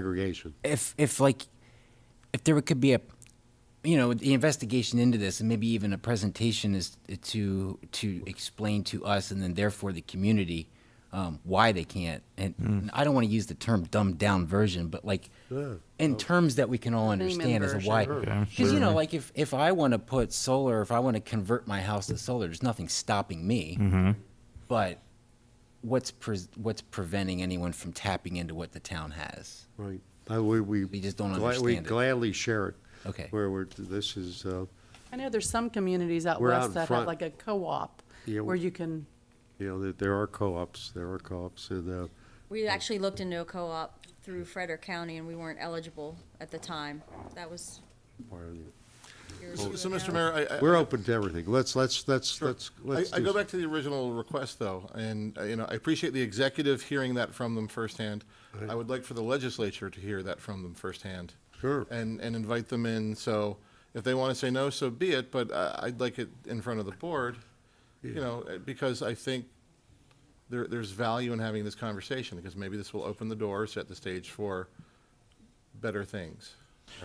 aggregation. if if like if there could be a you know the investigation into this and maybe even a presentation is to to explain to us and then therefore the community um, why they can't and I don't want to use the term dumbed down version but like Yeah. in terms that we can all Layman understand as a why version. because you know like if if I want to put solar if I want to convert my house to solar there's nothing stopping me but what's pre- what's preventing anyone from tapping into what the town has Right. Uh, We, we. We just don't gla- We understand it. gladly share it. Okay. Where we're, this is, uh, I know there's some communities out We're out in west that front. have like a co-op Yeah, where we- you can, you know, that there are co-ops, there are co-ops, and, uh, We actually looked into a co-op through Frederick County, and we weren't eligible at the time. That was part of the- years So, ago so, Mr. now. Mayor, I- I, we're open to everything. Let's, let's, let's, let's, I, let's. I do go some- back to the original request, though, and, uh, you know, I appreciate the executive hearing that from them firsthand. I would like for the legislature to hear that from them firsthand. Sure. And, and invite them in, so if they want to say no, so be it, but uh, I'd like it in front of the board, you know, uh, because I think there, there's value in having this conversation, because maybe this will open the door, set the stage for better things.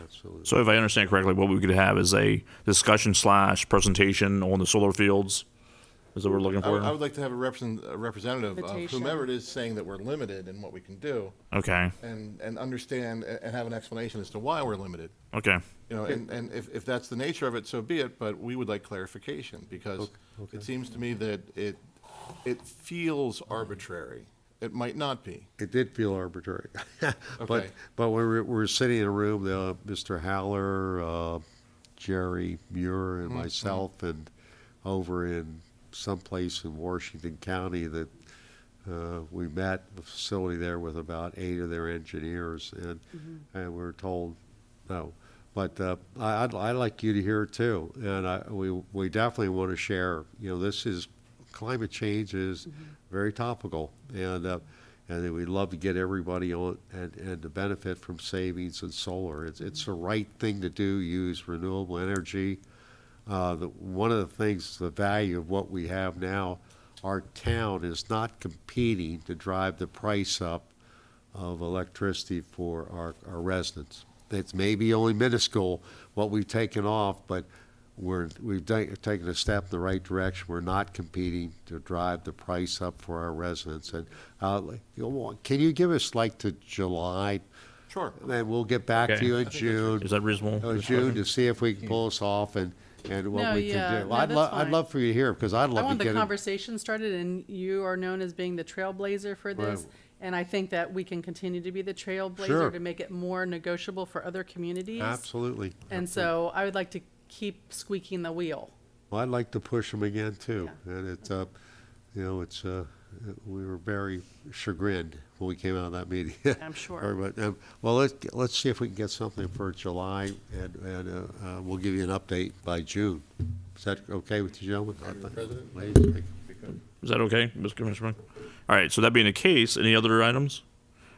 Absolutely. So if I understand correctly, what we could have is a discussion slash presentation on the solar fields. Is that what we're looking I would, I for? would like to have a represent, a representative of Invitation. whomever it is saying that we're limited in what we can do. Okay, and, and understand a- and have an explanation as to why we're limited. okay, You know, and, and if, if that's the nature of it, so be it, but we would like clarification because it seems to me that it, it feels arbitrary. It might not be. It did feel arbitrary. But, Okay. but when we were sitting in a room, uh, Mr. Howler, uh, Jerry Muir and myself and over in someplace in Washington County that, uh, we met the facility there with about eight of their engineers and, and we were told no. But, uh, I, I'd, I'd like you to hear it too. And I, we, we definitely want to share, you know, this is, climate change is very topical. And, uh, and then we'd love to get everybody on and, and to benefit from savings and solar. It's, it's the right thing to do, use renewable energy. Uh, the, one of the things, the value of what we have now, our town is not competing to drive the price up of electricity for our, our residents. It's maybe only minuscule what we've taken off, but we're, we've ta- taken a step in the right direction. We're not competing to drive the price up for our residents. And uh, you know, can you give us like to July? Sure. Then we'll get back to Okay. you in June. is that reasonable? Uh, June to see if we can pull this off and, and what No, we yeah, can do. no, I'd that's love, I'd fine. love for you to hear, because I'd I love want to the get it. conversation started and you are known as being the trailblazer for this. Right. And I think that we can continue to be the trailblazer Sure. to make it more negotiable for other communities. Absolutely. And so I would like to keep squeaking the wheel. Well, I'd like to push them again too. Yeah. And it's, uh, you know, it's, uh, we were very chagrined when we came out of that meeting. I'm sure. Everybody- um, Well, let's, let's see if we can get something for July and, and, uh, uh, we'll give you an update by June. Is that okay with you, gentlemen? President? Ladies, thank you. Is that okay, Mr. Commissioner? All right, so that being the case, any other items?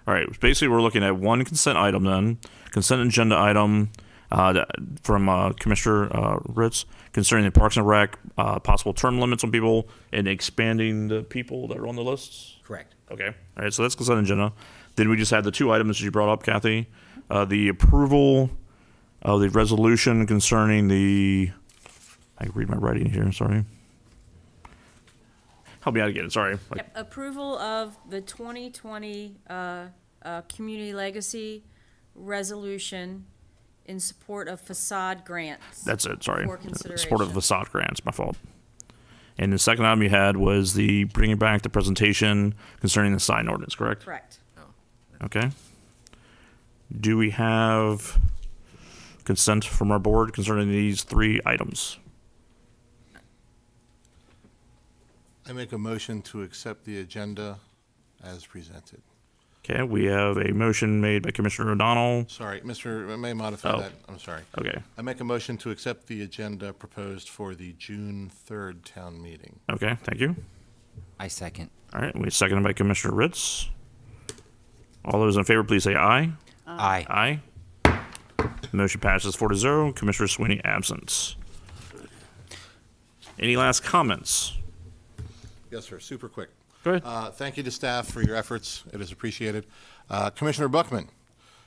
All right, basically, we're looking at one consent item then, consent agenda item uh, that- from uh, Commissioner uh, Ritz concerning the Parks and Rec, uh, possible term limits on people and expanding the people that are on the lists. correct Okay. All right. So that's consent agenda. Then we just had the two items that you brought up, Kathy. Uh, the approval of the resolution concerning the. I can read my writing here. Sorry. Help me out again. Sorry. Like, Yep, Approval of the 2020 uh, uh, Community Legacy Resolution in support of facade grants. That's it. Sorry. For Support of consideration. facade grants. My fault. And the second item you had was the bringing back the presentation concerning the sign ordinance. Correct. Correct. Okay. Do we have consent from our board concerning these three items? I make a motion to accept the agenda as presented. Okay, we have a motion made by Commissioner O'Donnell. Sorry, Mr., I may modify Oh. that. I'm sorry. Okay, I make a motion to accept the agenda proposed for the June 3rd town meeting. okay, thank you. I second All right, we seconded by Commissioner Ritz. All those in favor, please say aye. aye Aye. Motion passes four to zero. Commissioner Sweeney absent. Any last comments? Yes, sir, super quick. Go ahead. Uh, Thank you to staff for your efforts. It is appreciated. Uh, Commissioner Buckman?